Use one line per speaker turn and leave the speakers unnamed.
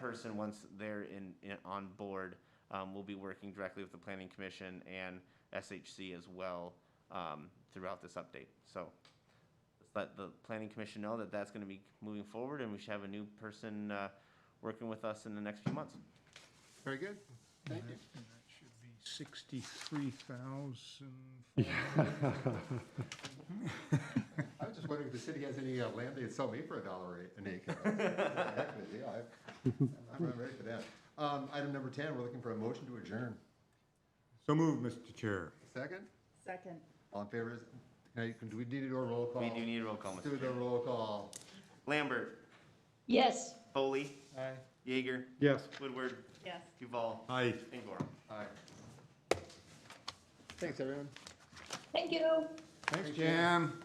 person, once they're in, in- on board, um, will be working directly with the planning commission and SHC as well, um, throughout this update. So let's let the planning commission know that that's gonna be moving forward and we should have a new person, uh, working with us in the next few months.
Very good. Thank you.
And that should be sixty-three thousand.
I was just wondering if the city has any uh, land they'd sell me for a dollar a- an acre. Heck with it, yeah, I- I'm not ready for that. Um, Item number 10, we're looking for a motion to adjourn.
So moved, Mr. Chair.
Second?
Second.
All in favor? is- now you can- Do we need to do a roll call?
We do need a roll call,
Let's
Mr.
Do the roll call.
Lambert,
Yes.
Foley. Jaeger,
Yes.
Woodward,
Yes.
Duval,
Aye.
and Gorham.
Aye. Thanks, everyone.
Thank you.
Thanks, Jim.